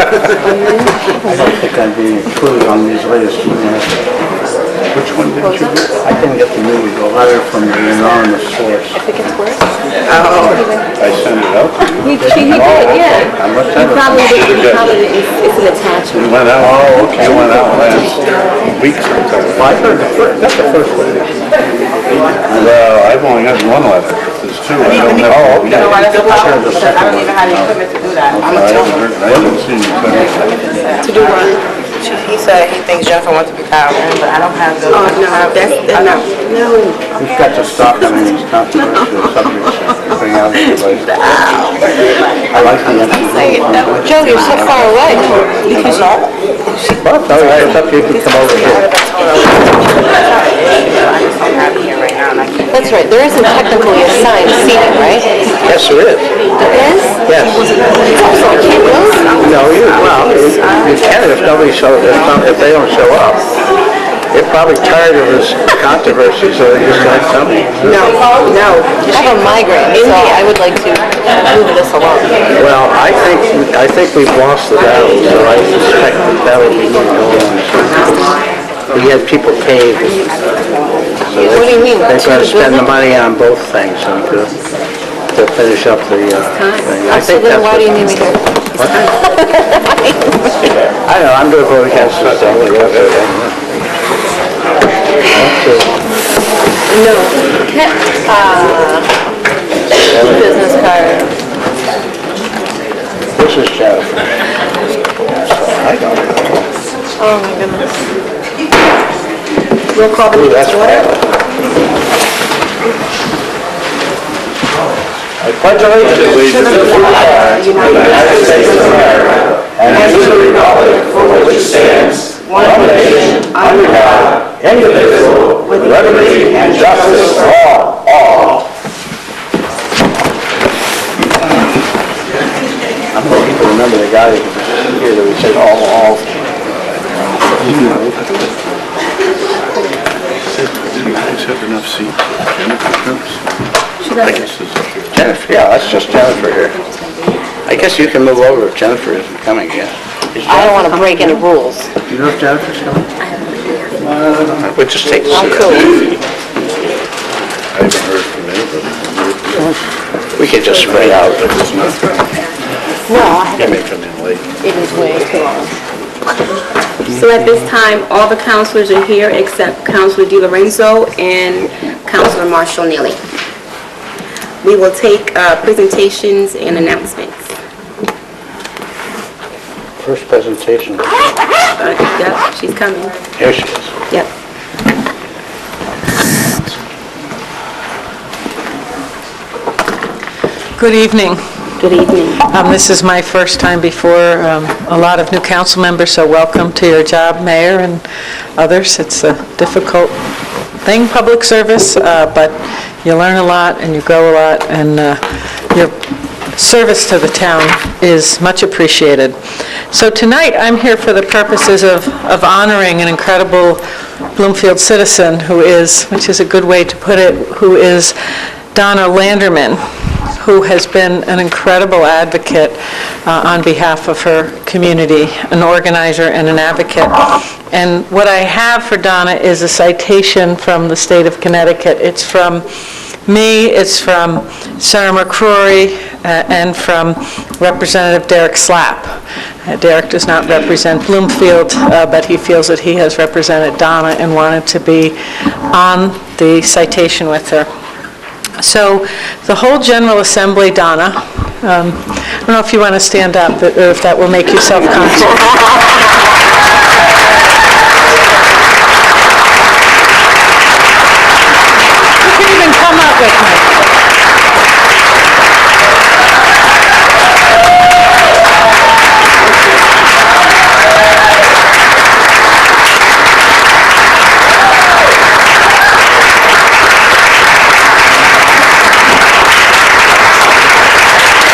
I don't think I'd be included on these latest emails. Which one did you get? I didn't get the new, the letter from the anonymous source. think it's worse. I sent it out. He, she, he did, yeah. I must He have it. probably did, he Good. probably did, it's, it's an It attachment. went out. Oh, okay. It went out last week sometime. Well, I heard the first, that's the first one. Well, I've only gotten one letter. There's two. I don't know. Oh, okay. You know why that's a problem? the Because I second don't even have the equipment to do that. I I'm haven't a gentleman. heard, I haven't seen you send it. To do what? He said he thinks Jennifer wants to be power, but I don't have the. Oh, no, that's, no. We've got to stop on these controversial subjects and bring out the debate. I like the empty. Joe, you're so far away. You can Well, it's all right, it's up to you to come over here. I just don't have it here right now, and I can't. That's right, there isn't technically assigned seating, right? Yes, there is. There is? Yes. So I can't move? No, you, well, you you can if nobody shows, if not- if they don't show up. They're probably tired of this controversy, so they just like something. No, no. I have a migraine, so I would like to move this along. Well, I think, I think we've lost the battle, so I suspect the battle we need to go on. We had people paid. so What do you mean? They're gonna spend the money on both things and to, to finish up the, uh, thing. I So think then that's why do you what- need me here? I don't know, I'm gonna vote against this. I don't think that's okay. No. uh, Business card. This is Jennifer. I don't know. Oh, my goodness. We'll call the meeting to order. I pledge allegiance to the flag of the United States of America and to the republic for which it stands, one nation, under God, indivisible, with liberty and justice for all. All. I'm hoping to remember the guy here that we said all, all. Did you guys have enough seats for Jennifer Coops? I guess this is here. Jennifer, yeah, that's just Jennifer here. I guess you can move over if Jennifer isn't coming yet. I don't want to break any rules. You know if Jennifer's coming? Uh, We'll just take a I'm seat. cool. I haven't heard from anybody. We could just spread out. But it's not, No, I they haven't. may come in late. It is way too long. So at this time, all the counselors are here except Counselor DiLorenzo and Counselor Marshall Neely. We will take uh, presentations and announcements. First presentation. Uh, Yep, she's coming. Here she is. Yep. Good evening. Good evening. Um, This is my first time before um, a lot of new council members, so welcome to your job, Mayor and others. It's a difficult thing, public service, uh, but you learn a lot and you grow a lot, and uh, your service to the town is much appreciated. So tonight, I'm here for the purposes of of honoring an incredible Bloomfield citizen who is, which is a good way to put it, who is Donna Landerman who has been an incredible advocate uh, on behalf of her community, an organizer and an advocate. And what I have for Donna is a citation from the state of Connecticut. It's from me, it's from Sarah McCrory, uh, and from Representative Derek Slapp. Uh, Derek does not represent Bloomfield, uh, but he feels that he has represented Donna and wanted to be on the citation with her. So the whole General Assembly, Donna, um, I don't know if you want to stand up, or if that will make you self-conscious. You can even come up with me.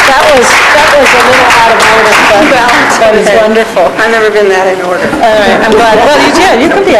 That was, that was a little out of order, but that was wonderful. I've never been that in order. All right, I'm glad, well, you did, you could be